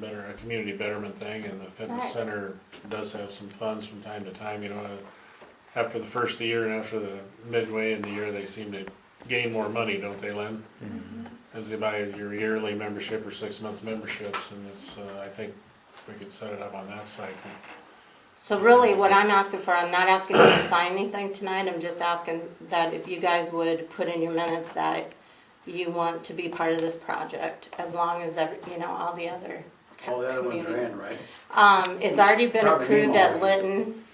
better, a community betterment thing, and the fitness Right. center does have some funds from time to time, you know. uh, After the first of the year and after the midway in the year, they seem to gain more money, don't they, Lynn? As they buy your yearly membership or six-month memberships, and it's, uh, I think if we could set it up on that site, So really, what I'm asking for, I'm not asking you to sign anything tonight, I'm just asking that if you guys would put in your minutes that you want to be part of this project, as long as every, you know, all the other All Oh, the other ones are communities. in, right? Um, it's already been Probably approved at already. Lytton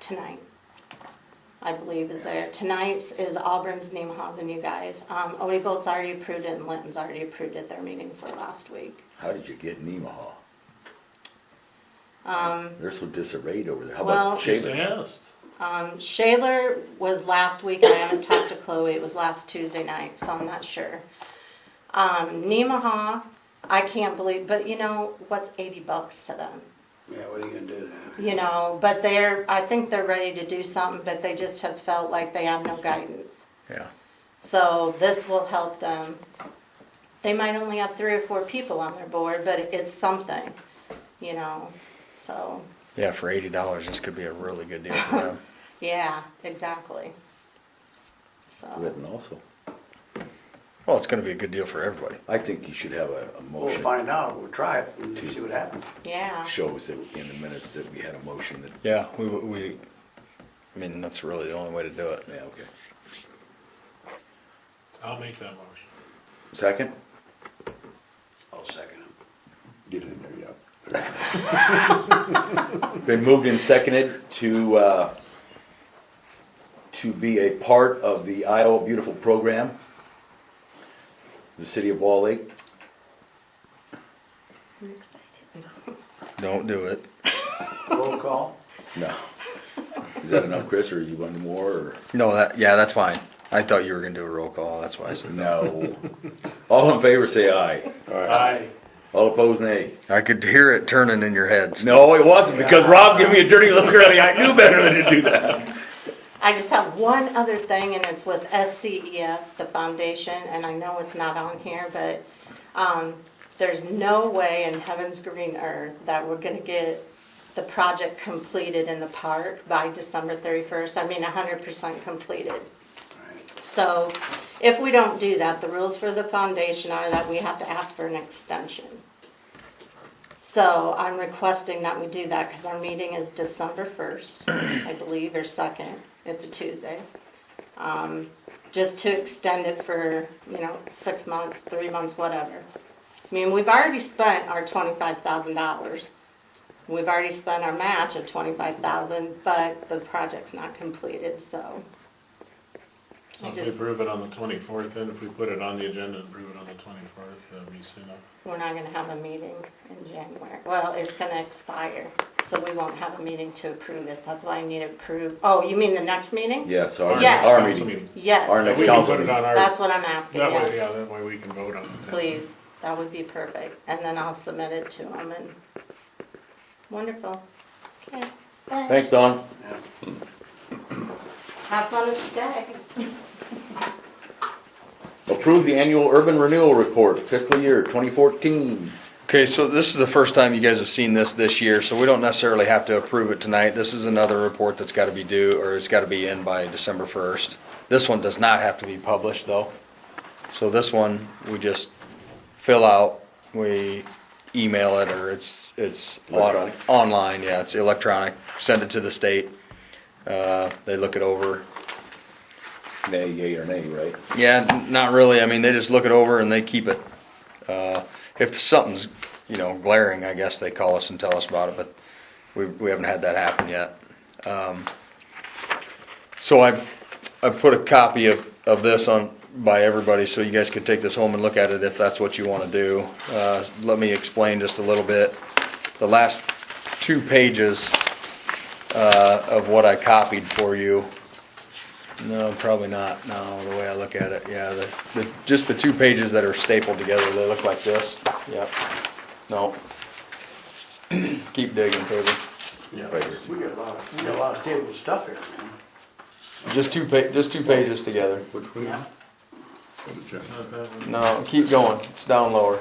tonight, I believe is there. Tonight's is Auburn's, Nemaha's, you guys. Um, Odie Bolt's already approved it and Lytton's already approved it, their meetings were last week. How did you get Nemaha? Um, They're so disarrayed over there. How Well- about just Shaler? asked. Um, Shaler was last week, and I haven't talked to Chloe, it was last Tuesday night, so I'm not sure. Um, Nemaha, I can't believe, but you know, what's eighty bucks to them? Yeah, what are you gonna do then? You know, but they're, I think they're ready to do something, but they just have felt like they have no guidance. Yeah. So this will help them. They might only have three or four people on their board, but it's something, you know, so, Yeah, for eighty dollars, this could be a really good deal for them. yeah, exactly. So. Written also. Well, it's gonna be a good deal for everybody. I think you should have a, a We'll motion. find out, we'll try it and see what happens. Yeah, Shows that in the minutes that we had a motion that, Yeah, we, we, I mean, that's really the only way to do it. yeah, okay. I'll make that motion. Second? I'll second it. Get in there, yeah. Been moved and seconded to, uh, to be a part of the Iowa Beautiful Program, the city of Wall Lake. I'm excited. Don't do it. Roll call? No. Is that enough, Chris, or you want more, or? No, that, yeah, that's fine. I thought you were gonna do a roll call, that's why I said. No. All in favor, say aye. Aye. All opposed, nay. I could hear it turning in your heads. No, it wasn't, because Rob gave me a dirty look earlier. I knew better than to do that. I just have one other thing, and it's with SCEF, the foundation, and I know it's not on here, but, um, there's no way in heaven's green earth that we're gonna get the project completed in the park by December thirty-first, I mean, hundred percent completed. So if we don't do that, the rules for the foundation are that we have to ask for an extension. So I'm requesting that we do that because our meeting is December first, I believe, or second. It's a Tuesday. Um, Just to extend it for, you know, six months, three months, whatever. I mean, we've already spent our twenty-five thousand dollars. We've already spent our match of twenty-five thousand, but the project's not completed, so. So I if we just- prove it on the twenty-fourth, then if we put it on the agenda and prove it on the twenty-fourth, that'd be soon enough. We're not gonna have a meeting in January. Well, it's gonna expire, so we won't have a meeting to approve it. That's why I need to approve. Oh, you mean the next meeting? Yes, Our our, Yes. next our council meeting. Yes. Our next We can council put it on meeting. our, That's that what I'm asking, way, yeah, yes. that way we can vote on it. then. Please, that would be perfect. And then I'll submit it to them and, wonderful. Okay, thanks. Thanks, Don. Yeah. Have fun at the stag. Approve the annual urban renewal report fiscal year twenty fourteen. Okay, so this is the first time you guys have seen this this year, so we don't necessarily have to approve it tonight. This is another report that's gotta be due, or it's gotta be in by December first. This one does not have to be published, though. So this one, we just fill out, we email it, or it's, it's on- Electronic? online, yeah, it's electronic, send it to the state. Uh, they look it over, Nay, yea, or nay, right? yeah, n- not really. I mean, they just look it over and they keep it. Uh, if something's, you know, glaring, I guess they call us and tell us about it, but we, we haven't had that happen yet. Um, So I, I put a copy of, of this on, by everybody, so you guys could take this home and look at it if that's what you wanna do. Uh, Let me explain just a little bit. The last two pages uh, of what I copied for you. No, probably not, no, the way I look at it, yeah, the, the, just the two pages that are stapled together, they look like this, yep, no. Keep digging, Toby, Yeah. We got a lot, of- we got a lot of stable stuff here, man. just two pa, just two pages together, Yeah. no, keep going, it's down lower.